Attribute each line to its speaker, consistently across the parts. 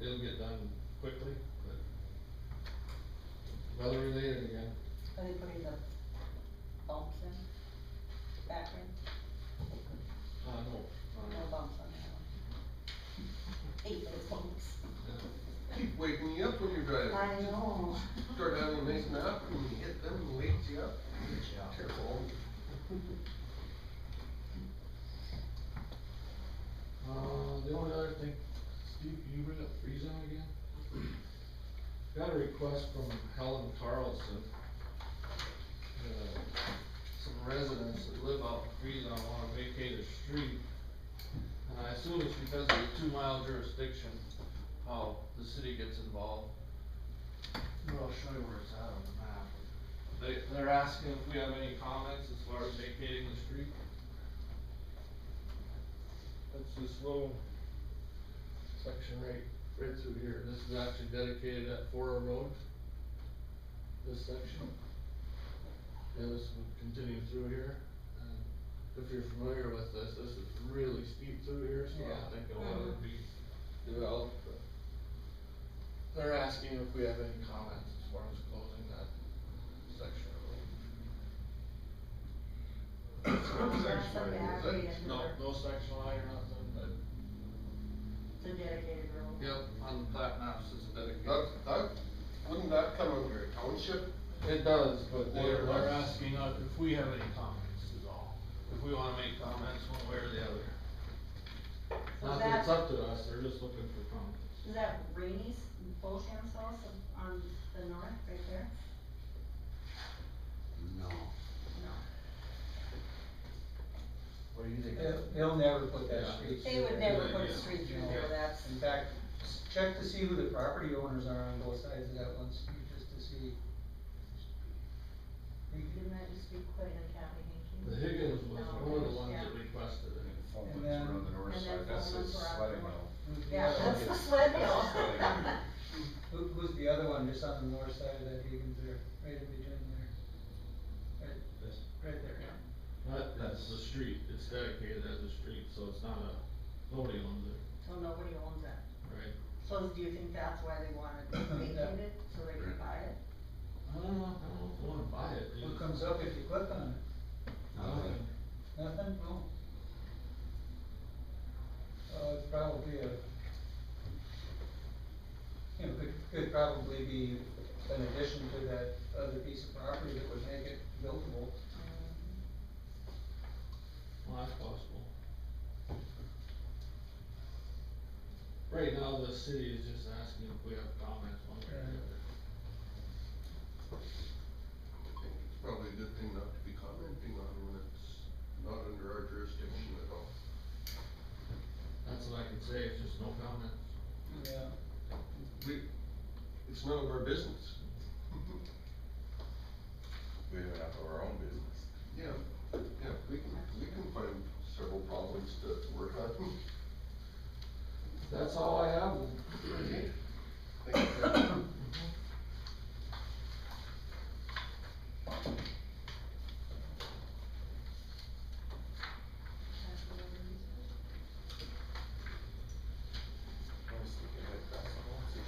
Speaker 1: it'll get done quickly, but weather related again.
Speaker 2: Are they putting the bumps in, back in,
Speaker 1: Uh, no,
Speaker 2: no
Speaker 1: uh,
Speaker 2: bumps on that one? Hate those bumps.
Speaker 3: Keep waking you up when you're driving.
Speaker 2: I know.
Speaker 3: Start having a nice nap and you hit them and wakes you up. Careful.
Speaker 1: Uh, the only other thing, Steve, can you bring up Friesen again? Got a request from Helen Carlson. Uh, Some residents that live out in Friesen wanna vacate a street. And I assume it's because of the two mile jurisdiction, how the city gets involved.
Speaker 4: Well, I'll show you where it's at on the map.
Speaker 1: They, they're asking if we have any comments as far as vacating the street. That's this little section right, right through here, this is actually dedicated at Fora Road. This section. Yeah, this would continue through here,
Speaker 5: Uh,
Speaker 1: and if you're familiar with this, this is really steep through here, so I
Speaker 2: Yeah.
Speaker 1: don't think it'll ever be developed, but. They're asking if we have any comments as far as closing that section of road.
Speaker 2: That's a
Speaker 3: Section line, is
Speaker 2: bad
Speaker 3: it?
Speaker 2: way to-
Speaker 1: No, no section line or nothing, but.
Speaker 2: It's a dedicated road.
Speaker 1: Yep, on the plat maps, it's
Speaker 3: That,
Speaker 1: dedicated.
Speaker 3: that, wouldn't that come under a township?
Speaker 1: It does, but they're,
Speaker 3: Or-
Speaker 1: they're asking us if we have any comments is all, if we wanna make comments one way or the other.
Speaker 2: So
Speaker 1: Not that
Speaker 2: that-
Speaker 1: it's up to us, they're just looking for comments.
Speaker 2: Is that Rainey's, Bolsham's house on- on the north, right there?
Speaker 6: No.
Speaker 2: No.
Speaker 1: What do you think?
Speaker 5: They'll, they'll never put that
Speaker 1: Yeah.
Speaker 5: street.
Speaker 2: They would
Speaker 5: through
Speaker 2: never
Speaker 5: there.
Speaker 2: put a
Speaker 1: Yeah.
Speaker 2: street through there, that's,
Speaker 5: In fact, s- check to see who the property owners are on both sides of that one street, just to see.
Speaker 2: didn't that used to be quite an county, Hinckley?
Speaker 1: The Higgins was
Speaker 2: No,
Speaker 1: one of the ones
Speaker 2: yeah.
Speaker 1: that requested it.
Speaker 5: And
Speaker 6: Fulman's
Speaker 5: then-
Speaker 6: were on the north
Speaker 2: and then
Speaker 6: side, that's the
Speaker 2: Fulman's were on the
Speaker 6: sledding
Speaker 2: north. Yeah,
Speaker 6: hill.
Speaker 5: Yeah.
Speaker 2: that's the sled hill.
Speaker 6: That's the sled hill.
Speaker 5: Who, who's the other one, just on the north side of that Higgins there, right in between there? Right, right there, yeah.
Speaker 1: That, that's the street, it's dedicated as a street, so it's not a, nobody owns it,
Speaker 2: So nobody owns that.
Speaker 1: right?
Speaker 2: So do you think that's why they wanted to vacate it, so they could buy it?
Speaker 1: I don't know, I don't know if I wanna buy it.
Speaker 5: What comes up if you click on it?
Speaker 6: Nothing.
Speaker 5: Nothing? No? Uh, it's probably a, you know, could, could probably be an addition to that other piece of property that would make it buildable.
Speaker 2: Um,
Speaker 1: Well, that's possible. Right now, the city is just asking if we have comments one way or the other.
Speaker 3: I think it's probably a good thing not to be commenting on when it's not under our jurisdiction at all.
Speaker 1: That's what I can say, it's just no comments.
Speaker 5: Yeah.
Speaker 3: We, it's none of our business.
Speaker 6: We have enough of our own business.
Speaker 3: Yeah, yeah, we can, we can find several problems to work on.
Speaker 1: That's all I have.
Speaker 3: Okay. Thank you, Kevin.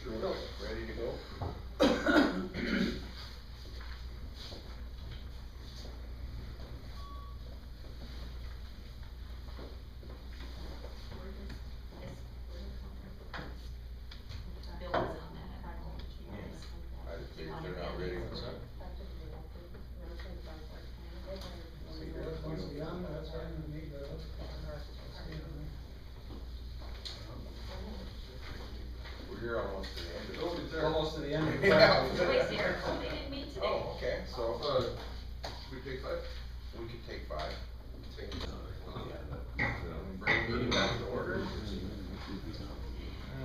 Speaker 3: Sure will, ready to go?
Speaker 6: I think they're not ready for that.
Speaker 5: See, that one's beyond, that's why we need the.
Speaker 6: We're here almost to the end of it.
Speaker 3: Oh, it's there.
Speaker 5: Almost to the end of the.
Speaker 6: Yeah.
Speaker 7: Wait, here, they didn't meet today.
Speaker 6: Oh, okay, so,
Speaker 3: Uh, should we take five?
Speaker 6: we could take five.
Speaker 3: Take it.
Speaker 6: Um, Bring the meeting back to order.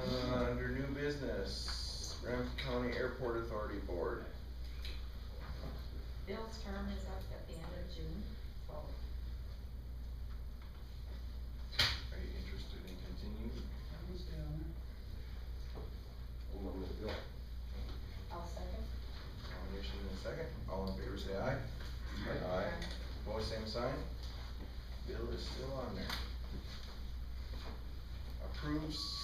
Speaker 6: Uh, under new business, Ramsey County Airport Authority Board.
Speaker 7: Bill's term is up at the end of June, so
Speaker 6: Are you interested in continuing?
Speaker 3: Hold on a minute, Bill.
Speaker 7: I'll second.
Speaker 6: Nomination in a second. All in favor, say aye.
Speaker 3: Aye.
Speaker 6: Opposed, same sign. Bill is still on there. Approves